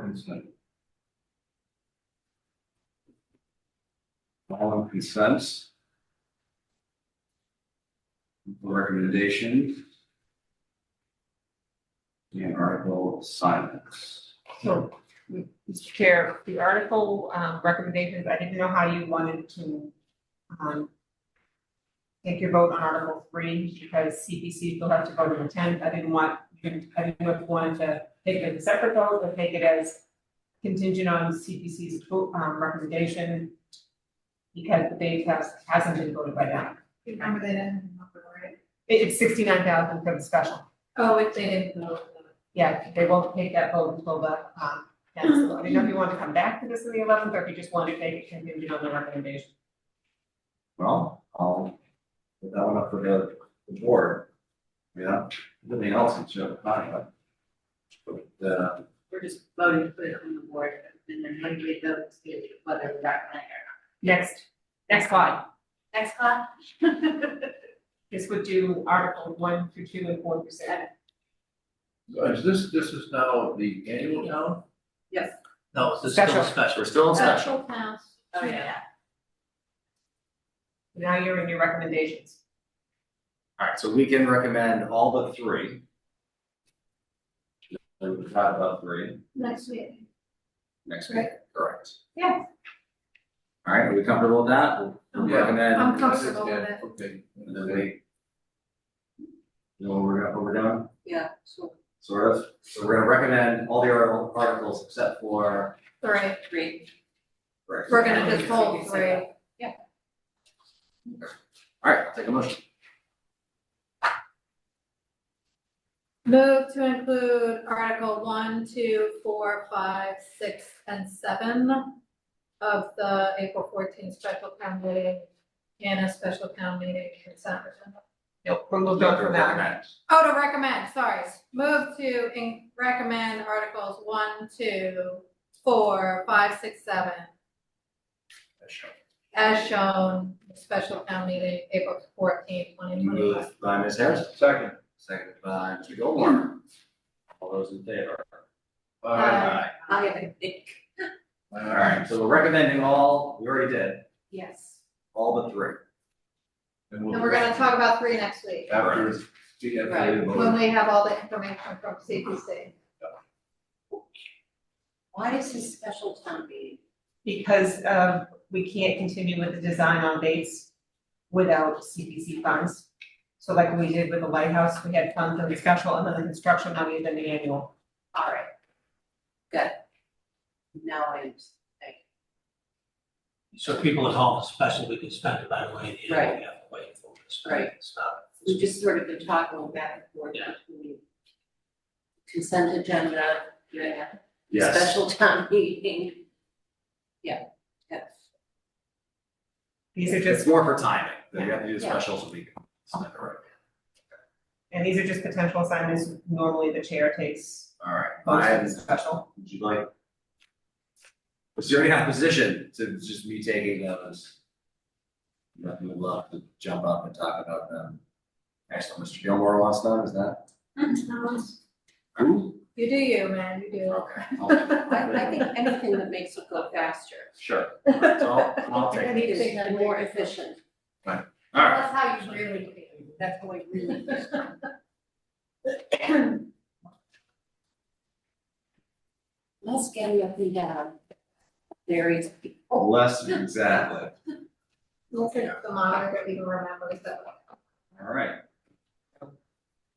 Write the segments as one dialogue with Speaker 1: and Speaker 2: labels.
Speaker 1: consent. All in consents? Recommendation. And article silence.
Speaker 2: So, Mr. Chair, the article, um, recommendations, I didn't know how you wanted to, um, take your vote on Article three, because CPC still have to vote on the tenth, I didn't want, I didn't know if you wanted to take it as a separate vote, or take it as contingent on CPC's, um, recommendation, because the date has, hasn't been voted by them.
Speaker 3: Remember they didn't vote, right?
Speaker 2: It- It's sixty-nine thousand for the special,
Speaker 3: Oh, if they didn't vote.
Speaker 2: yeah, they won't take that vote until the, um, next, I don't know if you want to come back to this in the eleventh, or if you just want to make it contingent on the recommendation.
Speaker 1: Well, I'll put that one up for the the board. Yeah, nothing else that's your time, but. But, uh,
Speaker 4: We're just voting to put it on the board and then when we vote, it's whether we recommend
Speaker 2: Next, next slide,
Speaker 4: it. Next class?
Speaker 2: this would do Article one through two and four through seven.
Speaker 5: Is this, this is now the annual town?
Speaker 4: Yes.
Speaker 6: No, it's still
Speaker 2: Special.
Speaker 6: a special, we're still in special.
Speaker 3: Special pass.
Speaker 4: Oh, yeah.
Speaker 2: Now you're in your recommendations,
Speaker 6: Alright, so we can recommend all but three.
Speaker 1: we would talk about three
Speaker 3: Next week.
Speaker 1: next week, correct?
Speaker 2: yeah,
Speaker 6: Alright, are we comfortable with that? We'll- We'll
Speaker 5: Yeah.
Speaker 6: recommend,
Speaker 3: I'm comfortable with
Speaker 5: Yeah,
Speaker 3: it.
Speaker 5: Okay.
Speaker 1: And then we. You know what we're gonna, what we're doing,
Speaker 4: Yeah, so
Speaker 1: sort of,
Speaker 6: so we're gonna recommend all the arti- articles except for,
Speaker 3: Three.
Speaker 4: three.
Speaker 6: correct.
Speaker 3: We're gonna just hold three.
Speaker 6: Alright, I'll take a motion.
Speaker 3: Move to include Article one, two, four, five, six, and seven of the April fourteenth special town meeting and a special town meeting consent agenda.
Speaker 2: Nope, we'll move on from that.
Speaker 6: Recommend.
Speaker 3: Oh, to recommend, sorry. Move to in- recommend Articles one, two, four, five, six, seven as shown, special town meeting, April fourteenth, twenty twenty-five.
Speaker 6: Moved by Ms. Harrison,
Speaker 5: Second.
Speaker 6: seconded by Mr. Goldmore. All those in favor?
Speaker 3: Aye.
Speaker 4: I have a big.
Speaker 6: Alright, so we're recommending all, we already did,
Speaker 4: Yes.
Speaker 6: all but three.
Speaker 5: And
Speaker 3: And we're gonna talk about three next week,
Speaker 5: After, it's- yeah, after the vote.
Speaker 3: when we have all the information from CPC.
Speaker 4: Why is this special town meeting?
Speaker 2: Because, um, we can't continue with the design on base without CPC funds. So like we did with the lighthouse, we had funds on the special, and then the construction, now we've done the annual.
Speaker 4: All right. Good. Now I am,
Speaker 7: So people at home, especially, we can spend it right away, you know, we have to wait for it to spend, it's not.
Speaker 4: we've just sort of been talking back and forth
Speaker 7: Yeah.
Speaker 4: between consent agenda, yeah,
Speaker 1: yes.
Speaker 4: special town meeting. Yeah, yes.
Speaker 2: These are
Speaker 6: It's
Speaker 2: just,
Speaker 6: more for timing, we have to do
Speaker 4: Yeah.
Speaker 6: specials a week. All
Speaker 2: and these are just potential assignments, normally the chair takes
Speaker 6: right,
Speaker 2: most of
Speaker 6: Brian,
Speaker 2: the special.
Speaker 6: would you like? Was there any opposition to just me taking those? Nothing would love to jump up and talk about them. Excellent, Mr. Gilmore wants them, is that? Who?
Speaker 3: You do you, man, you do.
Speaker 6: Okay, I'll-
Speaker 4: I, I think anything that makes it go faster.
Speaker 6: sure, so I'll, I'll take, it.
Speaker 4: It is more efficient.
Speaker 6: all right.
Speaker 3: That's how you really do.
Speaker 4: That's how I really. Less getting up uh, and down. Various people.
Speaker 6: Less, exactly,
Speaker 3: Look at the monitor, if you remember, so.
Speaker 6: all right.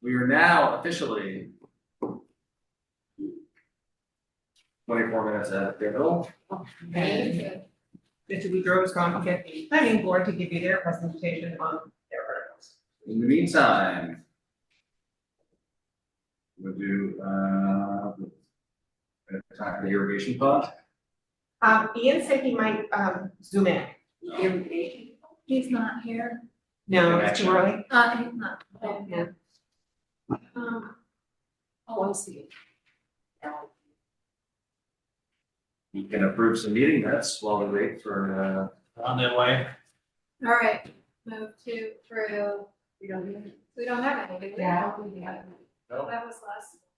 Speaker 6: We are now officially twenty-four minutes at the middle.
Speaker 2: And Mr. Boudreau has gone to get the planning board to give you their presentation on their articles.
Speaker 6: In the meantime. We'll do, uh, we're gonna talk to the irrigation fund.
Speaker 2: Um, Ian said he might, um, zoom in.
Speaker 4: Irrigation.
Speaker 3: He's not here.
Speaker 2: No, it's too early.
Speaker 3: Uh, he's not.
Speaker 2: Yeah.
Speaker 3: Um,
Speaker 4: Oh, I see. Now,
Speaker 6: We can approve some meeting minutes while we wait for, uh,
Speaker 7: On their way,
Speaker 3: all right, move to through,
Speaker 4: We don't need it.
Speaker 3: we don't have any, do we?
Speaker 4: we have.
Speaker 3: That was last.